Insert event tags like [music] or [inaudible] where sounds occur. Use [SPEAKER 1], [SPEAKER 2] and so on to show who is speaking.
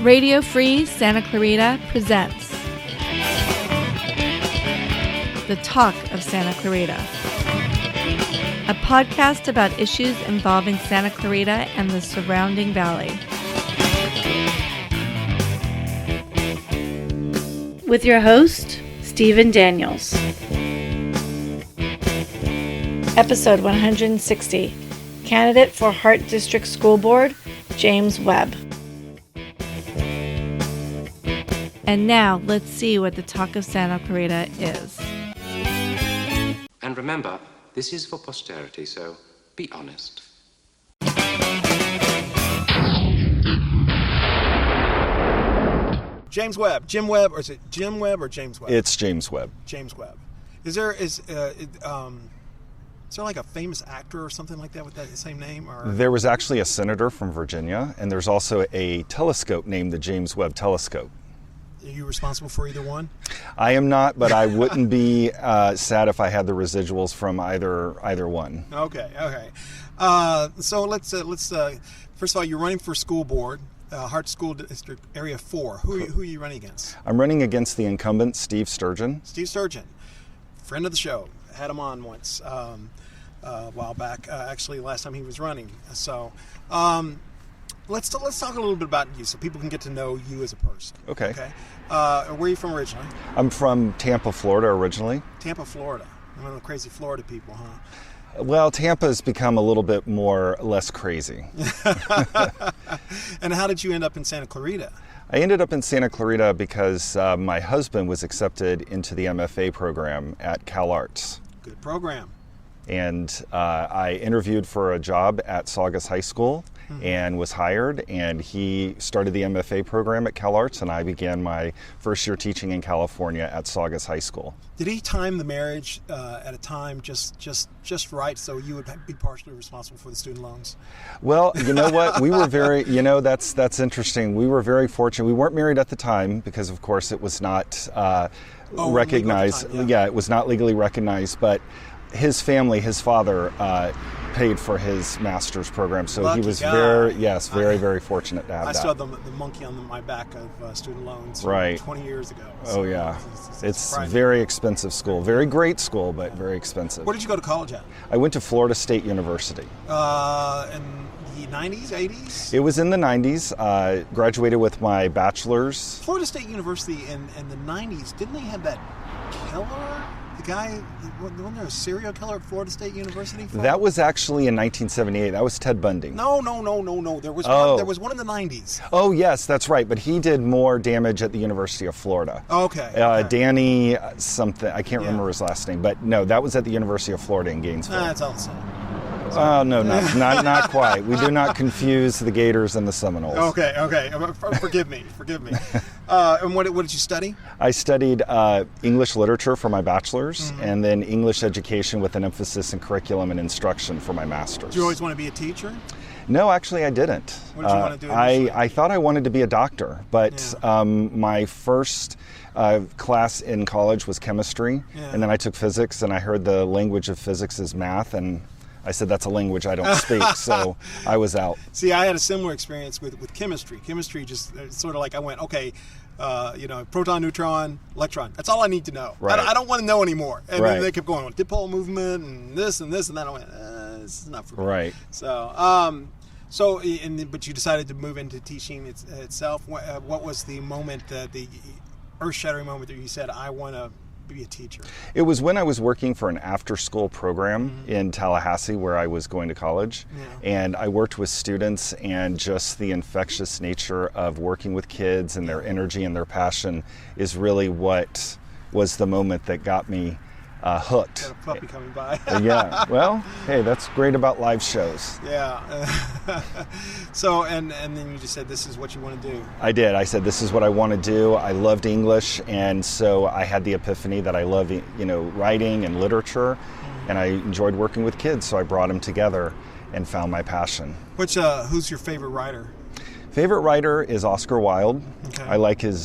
[SPEAKER 1] Radio Free Santa Clarita presents The Talk of Santa Clarita, a podcast about issues involving Santa Clarita and the surrounding valley.
[SPEAKER 2] with your host, Stephen Daniels. Episode 160 Candidate for Hart District School Board, James Webb.
[SPEAKER 1] And now let's see what the Talk of Santa Clarita is.
[SPEAKER 3] And remember, this is for posterity, so be honest.
[SPEAKER 4] James Webb, Jim Webb, or is it Jim Webb or James Webb?
[SPEAKER 5] It's James Webb.
[SPEAKER 4] James Webb. Is there is uh, it, um, is there like a famous actor or something like that with that same name? Or
[SPEAKER 5] There was actually a senator from Virginia, and there's also a telescope named the James Webb Telescope.
[SPEAKER 4] are you responsible for either one?
[SPEAKER 5] I am not, but I wouldn't be uh, sad if I had the residuals from either either one.
[SPEAKER 4] Okay, okay. Uh, so let's uh, let's uh, first of all, you're running for school board, uh, Hart School District Area Four. Who are you, who are you running against?
[SPEAKER 5] I'm running against the incumbent Steve Sturgeon.
[SPEAKER 4] Steve Sturgeon, friend of the show, had him on once um, uh, a while back. Uh, actually, last time he was running. So. Um, Let's, let's talk a little bit about you so people can get to know you as a person.
[SPEAKER 5] Okay.
[SPEAKER 4] Okay. Uh, where are you from originally?
[SPEAKER 5] I'm from Tampa, Florida, originally.
[SPEAKER 4] Tampa, Florida. One of the crazy Florida people, huh?
[SPEAKER 5] Well, Tampa's become a little bit more less crazy.
[SPEAKER 4] And how did you end up in Santa Clarita?
[SPEAKER 5] I ended up in Santa Clarita because uh, my husband was accepted into the MFA program at CalArts.
[SPEAKER 4] Good program.
[SPEAKER 5] and uh, I interviewed for a job at Saugus High School
[SPEAKER 4] Hmm.
[SPEAKER 5] and was hired. And he started the MFA program at CalArts, and I began my first year teaching in California at Saugus High School.
[SPEAKER 4] Did he time the marriage uh, at a time just just just right so you would be partially responsible for the student loans?
[SPEAKER 5] Well, you know what? We were very, you know, that's that's interesting. We were very fortunate. We weren't married at the time because, of course, it was not uh,
[SPEAKER 4] legal at the
[SPEAKER 5] recognized.
[SPEAKER 4] time, yeah.
[SPEAKER 5] yeah. it was not legally recognized, but. His family, his father, uh, paid for his master's program, so
[SPEAKER 4] Lucky
[SPEAKER 5] he was
[SPEAKER 4] guy.
[SPEAKER 5] very, yes, very,
[SPEAKER 4] I-
[SPEAKER 5] very fortunate to have
[SPEAKER 4] I
[SPEAKER 5] that.
[SPEAKER 4] still have the, the monkey on the, my back of uh, student loans from
[SPEAKER 5] Right.
[SPEAKER 4] 20 years ago.
[SPEAKER 5] Oh
[SPEAKER 4] So
[SPEAKER 5] yeah, it's
[SPEAKER 4] surprising.
[SPEAKER 5] very expensive school. Very great school, but very expensive.
[SPEAKER 4] Where did you go to college at?
[SPEAKER 5] I went to Florida State University.
[SPEAKER 4] Uh, in the 90s, 80s?
[SPEAKER 5] It was in the 90s. Uh, graduated with my bachelor's.
[SPEAKER 4] Florida State University in, in the 90s, didn't they have that Keller? The guy, wasn't there a serial killer at Florida State University? for
[SPEAKER 5] That was actually in 1978. That was Ted Bundy.
[SPEAKER 4] No, no, no, no, no. There was one,
[SPEAKER 5] Oh.
[SPEAKER 4] there was one in the nineties.
[SPEAKER 5] Oh yes, that's right. But he did more damage at the University of Florida.
[SPEAKER 4] Oh, Okay.
[SPEAKER 5] Uh,
[SPEAKER 4] okay.
[SPEAKER 5] Danny uh, something I can't
[SPEAKER 4] Yeah.
[SPEAKER 5] remember his last name, but no, that was at the University of Florida in Gainesville.
[SPEAKER 4] Nah, it's all the same.
[SPEAKER 5] oh
[SPEAKER 4] [laughs]
[SPEAKER 5] no, not, not not quite. We do not confuse the Gators and the Seminoles.
[SPEAKER 4] Okay, okay. Uh, for- Forgive me, forgive
[SPEAKER 5] [laughs]
[SPEAKER 4] me. Uh, and what, what did you study?
[SPEAKER 5] I studied uh, English literature for my bachelor's
[SPEAKER 4] Mm-hmm.
[SPEAKER 5] and then English education with an emphasis in curriculum and instruction for my master's.
[SPEAKER 4] Did you always want to be a teacher?
[SPEAKER 5] no, actually, I didn't. Uh,
[SPEAKER 4] What did you want to do
[SPEAKER 5] I,
[SPEAKER 4] initially?
[SPEAKER 5] I thought I wanted to be a doctor, but
[SPEAKER 4] Yeah.
[SPEAKER 5] um, my first uh, class in college was chemistry,
[SPEAKER 4] Yeah.
[SPEAKER 5] and then I took physics, and I heard the language of physics is math, and I said, that's a language I
[SPEAKER 4] [laughs]
[SPEAKER 5] don't speak, so I was out.
[SPEAKER 4] See, I had a similar experience with, with chemistry. Chemistry just uh, sort of like I went, okay, uh, you know, proton, neutron, electron. That's all I need to know. I,
[SPEAKER 5] Right.
[SPEAKER 4] don't- I don't want to know anymore. And then
[SPEAKER 5] Right.
[SPEAKER 4] they kept going with dipole movement and this and this and that. I went, uh, this is not for me.
[SPEAKER 5] Right.
[SPEAKER 4] So, um, so, i- and then- but you decided to move into teaching it's, itself. What, uh, what was the moment, uh, the earth-shattering moment that you said, "I want to be a teacher"?
[SPEAKER 5] It was when I was working for an after school program in Tallahassee where I was going to college. And I worked with students, and just the infectious nature of working with kids and their energy and their passion is really what was the moment that got me uh,
[SPEAKER 4] Got a
[SPEAKER 5] hooked.
[SPEAKER 4] puppy coming by.
[SPEAKER 5] yeah. Well, hey, that's great about live shows.
[SPEAKER 4] [laughs] yeah. [laughs] so, and and then you just said, "This is what you want to do."
[SPEAKER 5] I did. I said, "This is what I want to do." I loved English, and so I had the epiphany that I love, you know, writing and literature, and I enjoyed working with kids. So I brought them together and found my passion.
[SPEAKER 4] Which, uh, who's your favorite writer?
[SPEAKER 5] Favorite writer is Oscar Wilde.
[SPEAKER 4] Okay.
[SPEAKER 5] I like his